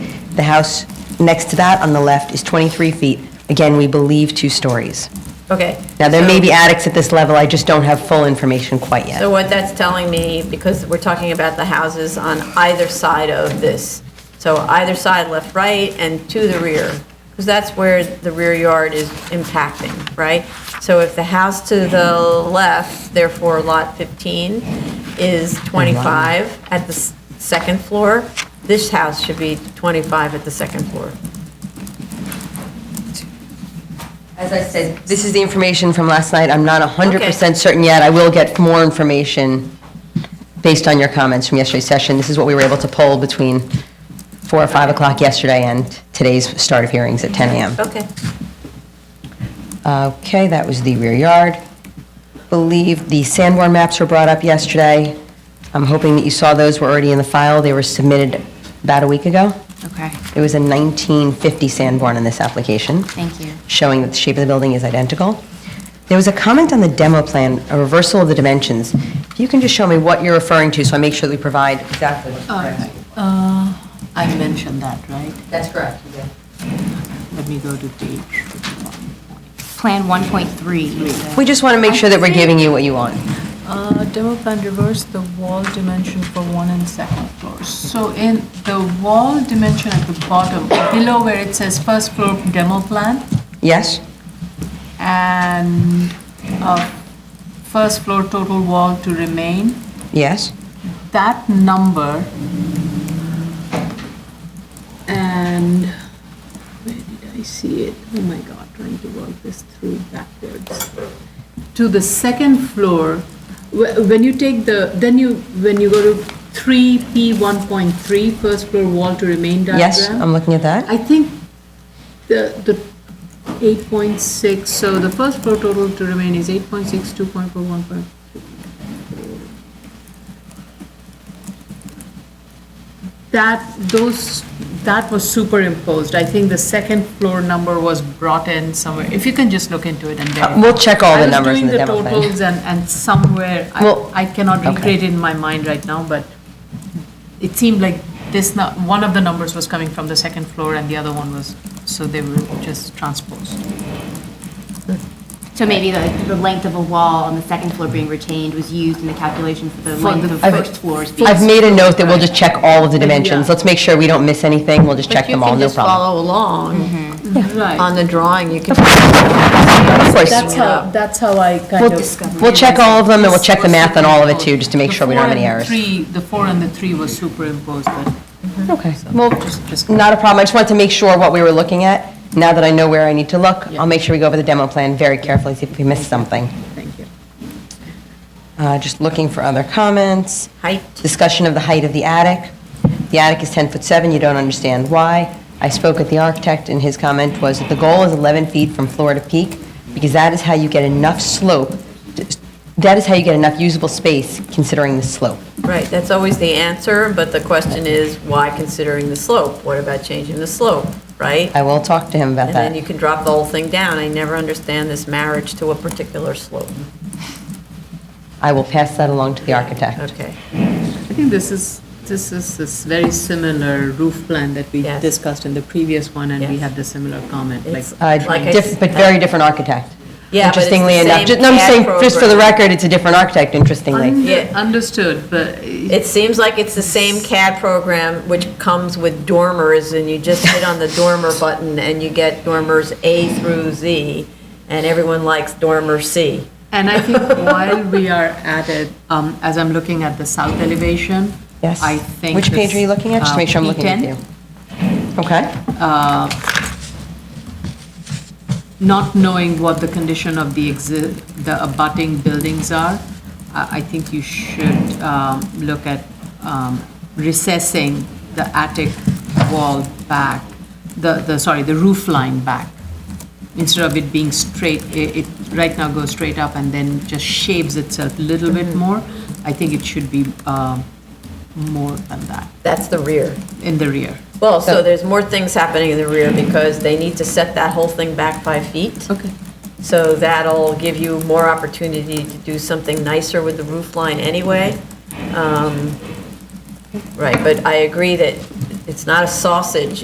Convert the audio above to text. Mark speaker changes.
Speaker 1: The house next to that on the left is 23 feet. Again, we believe two stories.
Speaker 2: Okay.
Speaker 1: Now, there may
Speaker 2: so-
Speaker 1: be attics at this level, I just don't have full information quite yet.
Speaker 2: So what that's telling me, because we're talking about the houses on either side of this, so either side, left, right, and to the rear, because that's where the rear yard is impacting, right? So if the house to the left, therefore lot 15, is
Speaker 1: Uh-huh.
Speaker 2: 25 at the s- second floor, this house should be 25 at the second floor.
Speaker 1: As I said, this is the information from last night. I'm not 100%
Speaker 2: Okay.
Speaker 1: certain yet. I will get more information based on your comments from yesterday's session. This is what we were able to poll between 4 or 5 o'clock yesterday and today's start of hearings at 10 a.m.
Speaker 2: Okay.
Speaker 1: Okay, that was the rear yard. Believe the Sanborn maps were brought up yesterday. I'm hoping that you saw those were already in the file. They were submitted about a week ago.
Speaker 3: Okay,
Speaker 1: It was a 1950 Sanborn in this application
Speaker 3: thank you.
Speaker 1: showing that the shape of the building is identical. There was a comment on the demo plan, a reversal of the dimensions. If you can just show me what you're referring to, so I make sure that we provide exactly what's correct.
Speaker 3: Uh, I mentioned that, right?
Speaker 1: That's correct. you did.
Speaker 3: Let me go to page. Plan 1.3.
Speaker 1: We just want to make sure that we're giving you what you want.
Speaker 4: Uh, Demo plan reverse the wall dimension for one and second floors. So in the wall dimension at the bottom, below where it says first floor demo plan
Speaker 1: Yes?
Speaker 4: and uh, first floor total wall to remain,
Speaker 1: Yes?
Speaker 4: that number and where did I see it? Oh my God, trying to work this through backwards. To the second floor, wh- when you take the, then you, when you go to 3P 1.3, first floor wall to remain diagram.
Speaker 1: Yes, I'm looking at that.
Speaker 4: I think the, the 8.6, so the first floor total to remain is 8.6, 2.4, 1.4. That, those, that was superimposed. I think the second floor number was brought in somewhere. If you can just look into it and
Speaker 1: Uh,
Speaker 4: verify.
Speaker 1: We'll check all the numbers in the
Speaker 4: I
Speaker 1: demo
Speaker 4: was doing the
Speaker 1: plan.
Speaker 4: totals and, and somewhere,
Speaker 1: Well,
Speaker 4: I- I cannot
Speaker 1: okay.
Speaker 4: recreate it in my mind right now, but it seemed like this, nu- one of the numbers was coming from the second floor and the other one was, so they were just transposed.
Speaker 3: So maybe the, the length of a wall on the second floor being retained was used in the calculation for the length
Speaker 4: the
Speaker 3: of
Speaker 1: I've-
Speaker 3: first floors being.
Speaker 1: I've made a note that we'll just check all of the dimensions.
Speaker 4: Yeah.
Speaker 1: Let's make sure we don't miss anything. We'll just check them all, no
Speaker 2: But you can just
Speaker 1: problem.
Speaker 2: follow along
Speaker 4: Right.
Speaker 2: on the drawing, you can,
Speaker 1: Of course.
Speaker 4: That's how, that's how I kind
Speaker 1: We'll-
Speaker 4: of.
Speaker 1: We'll check all of them, and we'll check the math on all of it, too, just to make
Speaker 4: The
Speaker 1: sure we don't have
Speaker 4: four
Speaker 1: any
Speaker 4: and
Speaker 1: errors.
Speaker 4: Three, the four and the three was superimposed, but
Speaker 1: Okay, well,
Speaker 4: just- just-
Speaker 1: not a problem, I just wanted to make sure what we were looking at. Now that I know where I need to look, I'll make sure we go over the demo plan very carefully, see if we missed something.
Speaker 4: thank you.
Speaker 1: Uh, Just looking for other comments.
Speaker 2: height,
Speaker 1: Discussion of the height of the attic. The attic is 10 foot 7, you don't understand why. I spoke with the architect, and his comment was that the goal is 11 feet from floor to peak, because that is how you get enough slope, that is how you get enough usable space considering the slope.
Speaker 2: Right, that's always the answer, but the question is, why considering the slope? What about changing the slope, right?
Speaker 1: I will talk to him about
Speaker 2: And then you
Speaker 1: that.
Speaker 2: can drop the whole thing down. I never understand this marriage to a particular slope.
Speaker 1: I will pass that along to the architect.
Speaker 2: Okay,
Speaker 4: I think this is, this is this very similar roof plan that we
Speaker 2: Yes.
Speaker 4: discussed in the previous one, and we
Speaker 2: Yes.
Speaker 4: had the similar comment, like,
Speaker 2: It's-
Speaker 1: Uh,
Speaker 2: Like I
Speaker 1: diff-
Speaker 2: s-
Speaker 1: But very different architect.
Speaker 2: Yeah, but it's the
Speaker 1: Interestingly enough,
Speaker 2: same
Speaker 1: Ju- no, I'm
Speaker 2: CAD
Speaker 1: saying, just for the
Speaker 2: program.
Speaker 1: record, it's a different architect, interestingly.
Speaker 4: Under-
Speaker 2: Yeah.
Speaker 4: understood, but uh,
Speaker 2: it seems like it's the same CAD program, which comes with dormers, and you just hit on the dormer button, and you get dormers A through Z, and everyone likes dormer C.
Speaker 4: And I think while we are at it, um, as I'm looking at the south elevation,
Speaker 1: Yes.
Speaker 4: I think. uh,
Speaker 1: Which page are you looking at? Just to make sure I'm looking at
Speaker 4: at
Speaker 1: you. Okay.
Speaker 4: Not knowing what the condition of the exi, the abutting buildings are, I, I think you should, um, look at, um, recessing the attic wall back, the, the, sorry, the roof line back. Instead of it being straight, it, it right now goes straight up and then just shaves itself a little bit more. I think it should be, um, more than that,
Speaker 2: That's the rear.
Speaker 4: in the rear.
Speaker 2: Well, so
Speaker 1: So-
Speaker 2: there's more things happening in the rear, because they need to set that whole thing back five feet.
Speaker 4: Okay.
Speaker 2: So that'll give you more opportunity to do something nicer with the roof line anyway. Um, Right, but I agree that it's not a sausage,